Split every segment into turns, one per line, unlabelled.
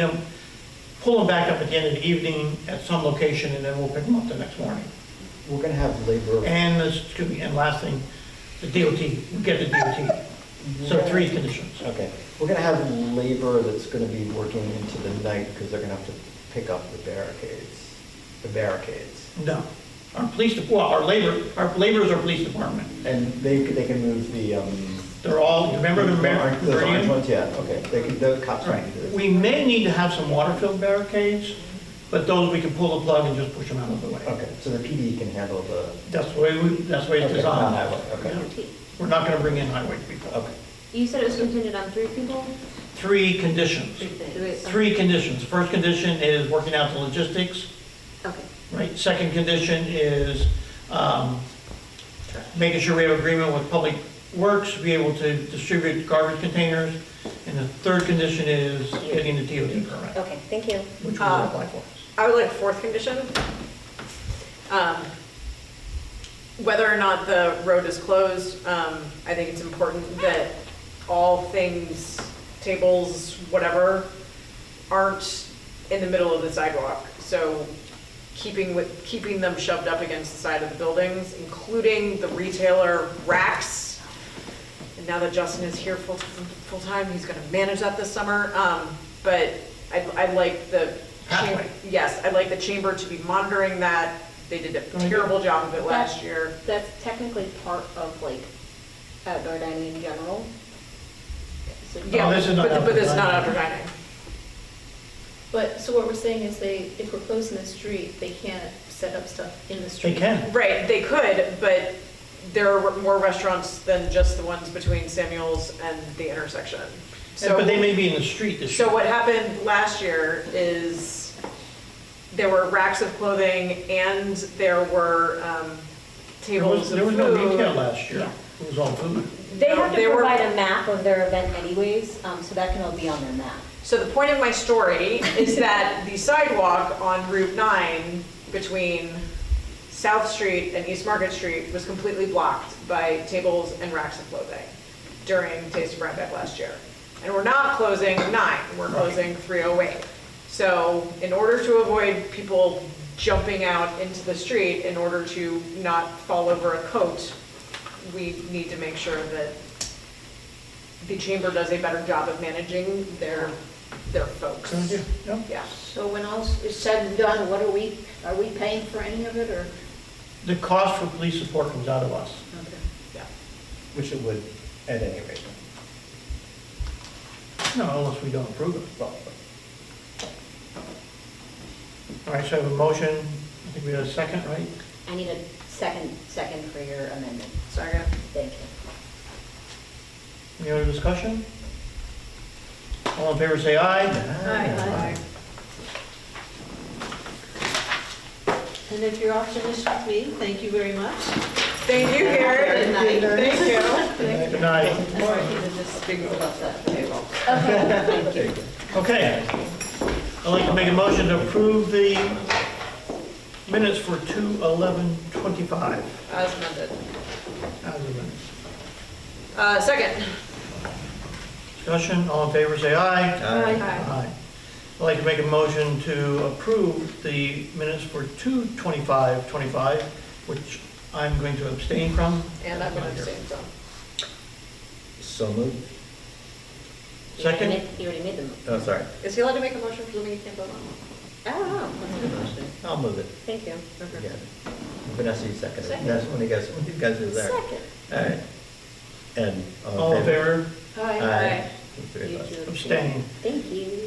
them, pull them back up at the end of the evening at some location, and then we'll pick them up the next morning.
We're gonna have labor,
And, this- excuse me, and last thing, the DOT, we get the DOT. So three conditions.
okay, we're gonna have labor that's gonna be working into the night because they're gonna have to pick up the barricades, the barricades.
No. Our police, de- well, our labor, our labor is our police department.
And they, they can move the, um.
They're all, you remember the Mer-
Those orange
Meridian?
ones, yeah, okay, they can, the cops
Right.
can do this.
We may need to have some water-filled barricades, but those we can pull the plug and just push them out of the way.
Okay, so the PD can handle the,
That's the way, we. that's the way it's
Okay,
designed.
highway, okay.
Yeah. We're not gonna bring in highway people.
okay,
You said it was contingent on three people?
Three conditions.
Do we-
Three conditions. First condition is working out the logistics,
Okay,
right? Second condition is um, making sure we have agreement with Public Works, be able to distribute garbage containers. And the third condition is getting the DOT permit,
Okay, thank you.
which we will
Uh,
apply for.
I would like a fourth condition. Um, Whether or not the road is closed, um, I think it's important that all things, tables, whatever, aren't in the middle of the sidewalk. So keeping with, keeping them shoved up against the side of the buildings, including the retailer racks. And now that Justin is here full, full-time, he's gonna manage that this summer. Um, but I, I like the.
Halfway.
Yes, I'd like the chamber to be monitoring that. They did a terrible job of it last year.
That's technically part of like outdoor dining in general. So-
Yeah,
Oh, this is not
but- But it's not
outdoor
outdoor
dining.
dining.
But, so what we're saying is they, if we're closing the street, they can't set up stuff in the
They
street.
can.
Right, they could, but there are more restaurants than just the ones between Samuel's and the intersection. So.
But they may be in the street this year.
So what happened last year is there were racks of clothing and there were um,
There
tables
was,
of food.
there was no retail last year. It was all food.
They have
They
to
were-
provide a map of their event anyways, um, so that can all be on their map.
So the point of my story is that the sidewalk on Route 9 between South Street and East Market Street was completely blocked by tables and racks of clothing during Taste of Rhinebeck last year. And we're not closing 9, we're closing 308. So in order to avoid people jumping out into the street, in order to not fall over a coat, we need to make sure that the chamber does a better job of managing their, their folks.
So, yeah, yeah.
Yeah.
So when all is said and done, what are we, are we paying for any of it, or?
The cost for police support comes out of us.
which it would at any rate.
No, unless we don't approve it.
Well,
All right, so I have a motion. I think we had a second, right?
I need a second, second for your amendment.
Second.
Thank you.
Any other discussion? All in favor, say aye.
Aye.
And if you're all finished with me, thank you very much.
Thank you, Gary.
Good night.
Thank you.
Good night.
Or if you could just figure out that table.
Okay. I'd like to make a motion to approve the minutes for 2/11/25.
As amended.
As amended.
Uh, second.
Discussion, all in favor, say aye.
Aye.
Aye. I'd like to make a motion to approve the minutes for 2/25/25, which I'm going to abstain from.
And I'm gonna abstain from.
So moved,
You already
Second?
made- You already made them.
oh, sorry,
Is he allowed to make a motion for something he can't vote on?
I don't know. That's a good question.
I'll move it.
Thank you.
Yeah. Vanessa, you seconded. it. That's when you guys, when you guys are there.
Second.
All right. And.
All in favor?
Aye. Three
You
of us.
two
Abstain.
Thank you.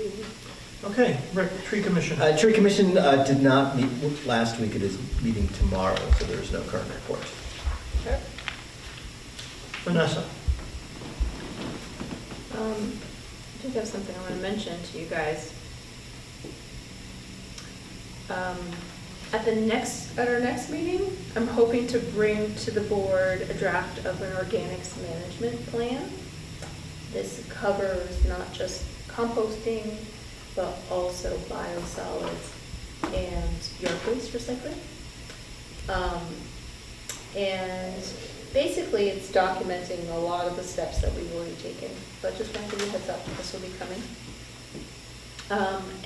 Okay, Rick, tree commission.
Uh, Tree Commission uh, did not meet last week, it is meeting tomorrow, so there is no current report.
Vanessa.
Um, I do have something I want to mention to you guys. Um, At the next, at our next meeting, I'm hoping to bring to the board a draft of an organics management plan. This covers not just composting, but also biosolids and yard waste recycling. Um, and basically, it's documenting a lot of the steps that we've already taken, but just wanted to give you a heads up, this will be coming. Um,